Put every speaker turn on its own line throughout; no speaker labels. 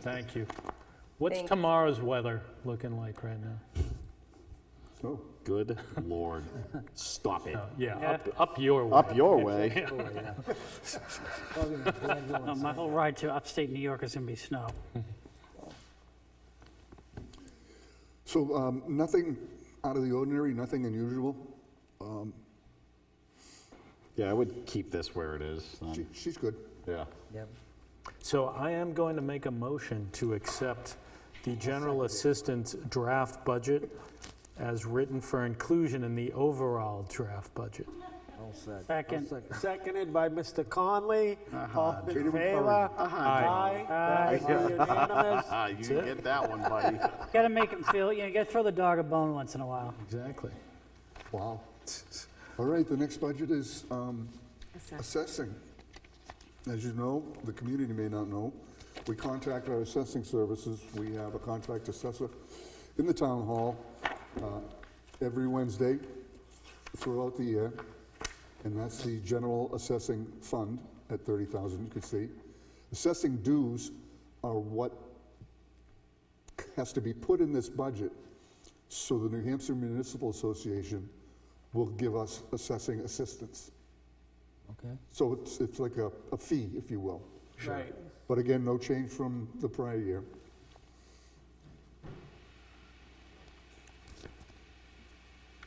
Thank you. What's
Thank-
tomorrow's weather looking like right now?
Oh,
Good lord. Stop it.
Yeah, up, up your way.
Up your way.
probably not glad you
Uh,
went.
My whole ride to upstate New York is going to be snow.
So um, nothing out of the ordinary, nothing unusual.
Yeah, I would keep this where it is. um,
She- She's good.
Yeah.
Yep.
So I am going to make a motion to accept the general assistance draft budget as written for inclusion in the overall draft budget.
All set.
Second.
All set.
Seconded by Mr. Conley. All in favor? Aye.
uh,
Aye. Unanimous.
Ah, you didn't get that one, buddy.
Got to make him feel, you know, got to throw the dog a bone once in a while.
Exactly.
Wow. All right, the next budget is um, assessing. As you know, the community may not know, we contract our assessing services. We have a contract assessor in the town hall uh, every Wednesday throughout the year. And that's the general assessing fund at 30,000, you can see. Assessing dues are what has to be put in this budget so the New Hampshire Municipal Association will give us assessing assistance.
Okay.
So it's, it's like a, a fee, if you will.
Right.
But again, no change from the prior year.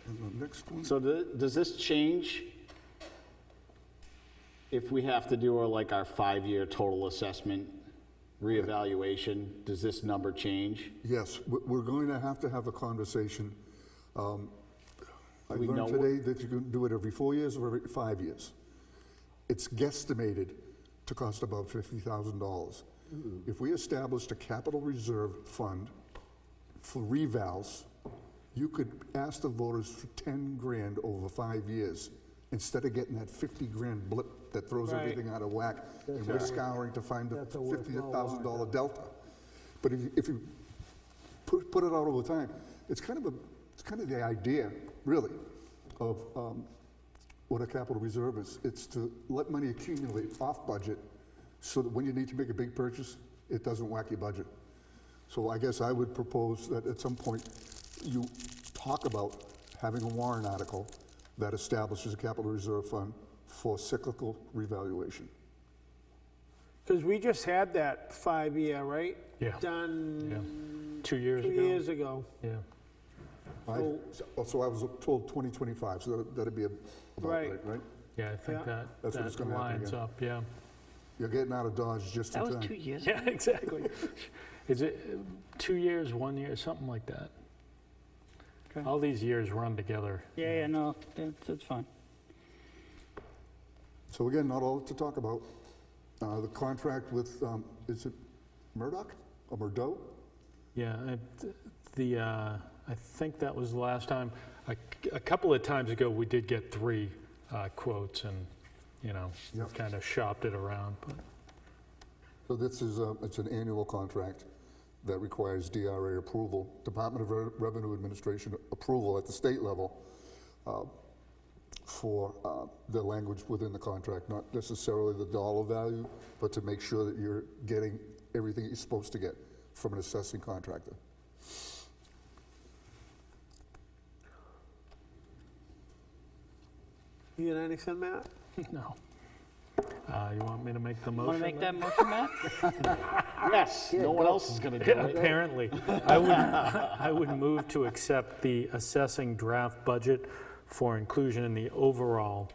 And the next one,
So th- does this change if we have to do our, like, our five-year total assessment reevaluation? Does this number change?
yes, we- we're going to have to have a conversation. Um, I
We
learned
know-
today that you can do it every four years or every five years. It's guesstimated to cost about $50,000. If we established a capital reserve fund for revals, you could ask the voters for 10 grand over five years, instead of getting that 50 grand blip that throws
Right.
everything out of whack, and we're scouring to find the
That's a worthwhile
$50,000 delta. But if you- if you put, put it out all the time. It's kind of a, it's kind of the idea, really, of um, what a capital reserve is. It's to let money accumulate off budget, so that when you need to make a big purchase, it doesn't whack your budget. So I guess I would propose that at some point, you talk about having a warrant article that establishes a capital reserve fund for cyclical revaluation.
Because we just had that five-year, right?
Yeah. Yeah.
Done
Two years
two
ago?
years ago.
Yeah.
I- So so I was told 2025, so that- that'd be about
Right.
right, right?
Yeah, I think
Yeah.
that,
That's what it's
that
gonna happen
lines
again.
up, yeah.
You're getting out of Dodge just in
That
time.
was two years.
Yeah, exactly. Is it uh, two years, one year, something like that?
Okay.
All these years run together.
Yeah, yeah, no, that's, that's fine.
So again, not all to talk about. Uh, The contract with, um, is it Murdoch or Murdo?
Yeah, I- the, uh, I think that was the last time. A a couple of times ago, we did get three uh, quotes and, you know,
Yep.
kind of shopped it around. but-
So this is, uh, it's an annual contract that requires DRA approval, Department of Re- Revenue Administration approval at the state level uh, for uh, the language within the contract, not necessarily the dollar value, but to make sure that you're getting everything you're supposed to get from an assessing contractor.
You got anything, Matt?
No. Uh, You want me to make the motion?
Want to make
then?
that motion, Matt?
Yes, no one else is going to do it.
Apparently. I would, I would move to accept the assessing draft budget for inclusion in the overall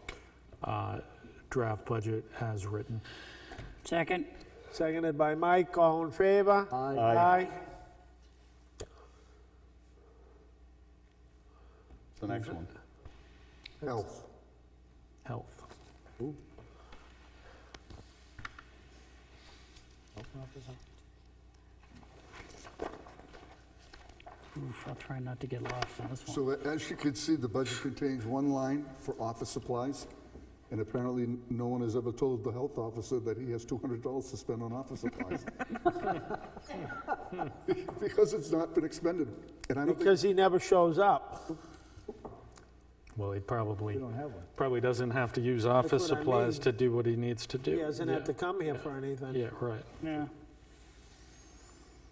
uh, draft budget as written.
Second.
Seconded by Mike. All in favor?
Aye.
Aye.
The next one.
Health.
Health.
Oof, I'll try not to get lost on this one.
So a- as you can see, the budget contains one line for office supplies, and apparently n- no one has ever told the health officer that he has $200 to spend on office supplies. Be- Because it's not been expended, and I don't think,
Because he never shows up.
Well, he
We
probably,
don't have one.
probably doesn't have to use office
what I
supplies
mean.
to do what he needs to do.
He doesn't have
Yeah.
to come here for anything.
Yeah, right.
Yeah.